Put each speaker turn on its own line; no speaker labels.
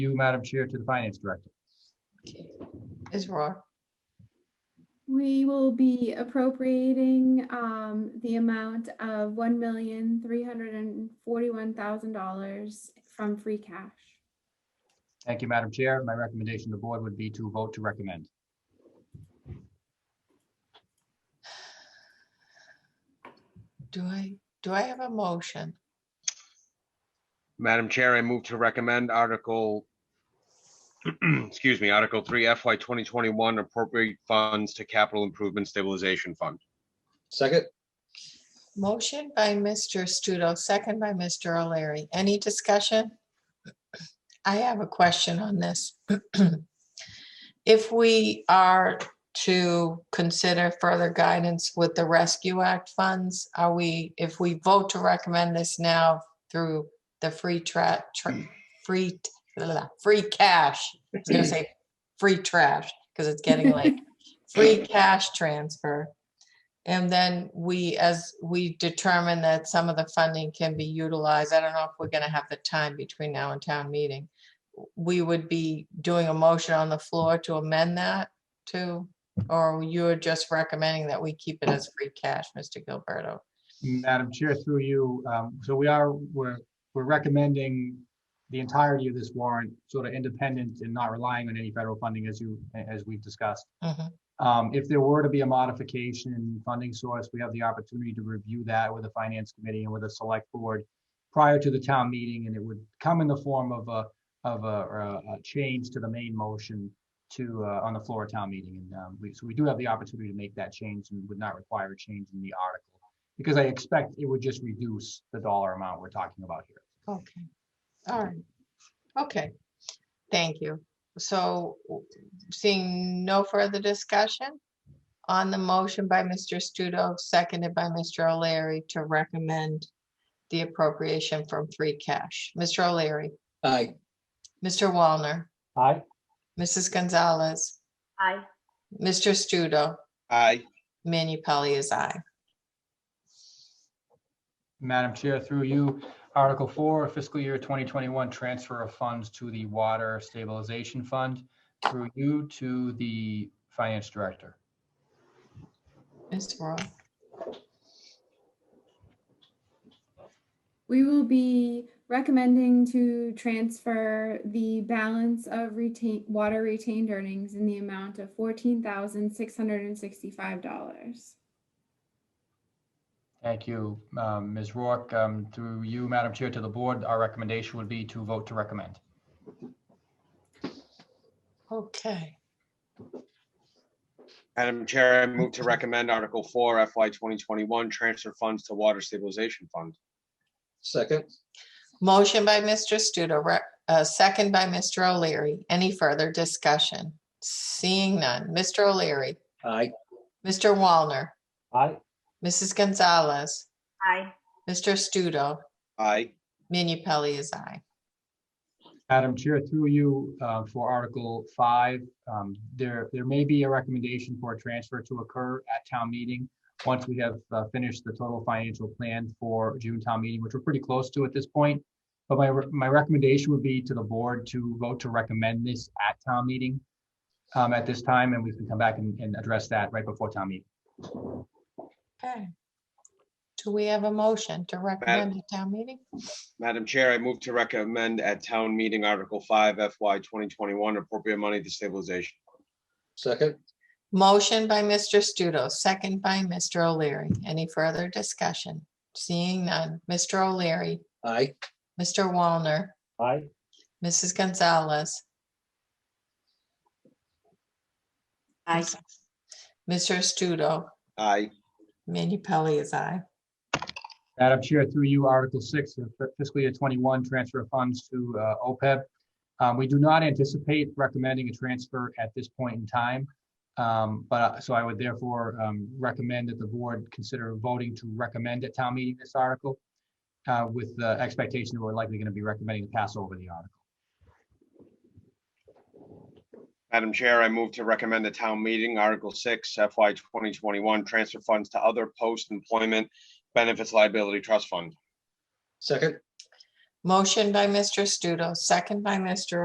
you, Madam Chair, to the Finance Director.
Ms. Rohr,
We will be appropriating um the amount of one million, three hundred and forty-one thousand dollars from free cash.
Thank you, Madam Chair. My recommendation to the board would be to vote to recommend.
do I, do I have a motion?
Madam Chair, I move to recommend Article, excuse me, Article 3 FY 2021 appropriate funds to capital improvement stabilization fund.
Second,
Motion by Mr. Studo, second by Mr. O'Leary. Any discussion? I have a question on this. If we are to consider further guidance with the Rescue Act funds, are we, if we vote to recommend this now through the free tra, tra- free, t- blah, blah, blah, free cash, I was gonna say free trash, because it's getting late. Free cash transfer. And then we, as we determine that some of the funding can be utilized, I don't know if we're gonna have the time between now and town meeting. We would be doing a motion on the floor to amend that too? Or you're just recommending that we keep it as free cash, Mr. Gilberto?
Madam Chair, through you, um, so we are, we're, we're recommending the entirety of this warrant, sort of independent and not relying on any federal funding as you, as we've discussed.
Mhm.
Um, if there were to be a modification in funding source, we have the opportunity to review that with the finance committee and with the select board prior to the town meeting, and it would come in the form of a, of a, or a a change to the main motion to, uh, on the floor of town meeting. And, um, we, so we do have the opportunity to make that change and would not require a change in the article. Because I expect it would just reduce the dollar amount we're talking about here.
Okay, all right, okay, thank you. So w- seeing no further discussion on the motion by Mr. Studo, seconded by Mr. O'Leary to recommend the appropriation from free cash. Mr. O'Leary,
aye,
Mr. Walner,
Aye.
Mrs. Gonzalez,
Aye.
Mr. Studo,
Aye.
Manu Pelley is aye.
Madam Chair, through you, Article Four, Fiscal Year 2021 Transfer of Funds to the Water Stabilization Fund. Through you to the Finance Director.
Mr. Roy,
We will be recommending to transfer the balance of retain, water retained earnings in the amount of fourteen thousand, six hundred and sixty-five dollars.
Thank you, um, Ms. Rourke. Um, Through you, Madam Chair, to the Board, our recommendation would be to vote to recommend.
okay,
Madam Chair, I move to recommend Article 4 FY 2021 transfer funds to water stabilization fund.
second,
motion by Mr. Studo, re- uh, second by Mr. O'Leary. Any further discussion? Seeing none, Mr. O'Leary,
aye,
Mr. Walner,
Aye.
Mrs. Gonzalez,
Aye.
Mr. Studo,
Aye.
Manu Pelley is aye.
Madam Chair, through you, uh, for Article 5, um, there, there may be a recommendation for a transfer to occur at town meeting once we have uh, finished the total financial plan for June town meeting, which we're pretty close to at this point. But my, re- my recommendation would be to the board to vote to recommend this at town meeting um, at this time, and we can come back and, and address that right before town meeting.
Okay. Do we have a motion to recommend at town meeting?
Madam Chair, I move to recommend at town meeting Article 5 FY 2021 appropriate money to stabilization.
second,
Motion by Mr. Studo, second by Mr. O'Leary. Any further discussion? Seeing none. Mr. O'Leary,
aye,
Mr. Walner,
Aye.
Mrs. Gonzalez,
Aye.
Mr. Studo,
Aye.
Manu Pelley is aye.
Madam Chair, through you, Article 6, of fi- fiscal year 21, transfer of funds to uh, OPEB. Um, We do not anticipate recommending a transfer at this point in time. Um, But, uh, so I would therefore um, recommend that the board consider voting to recommend at town meeting this article uh, with the expectation that we're likely going to be recommending to pass over the article.
Madam Chair, I move to recommend the town meeting Article 6 FY 2021 transfer funds to other post-employment benefits liability trust fund.
second.
Motion by Mr. Studo, second by Mr.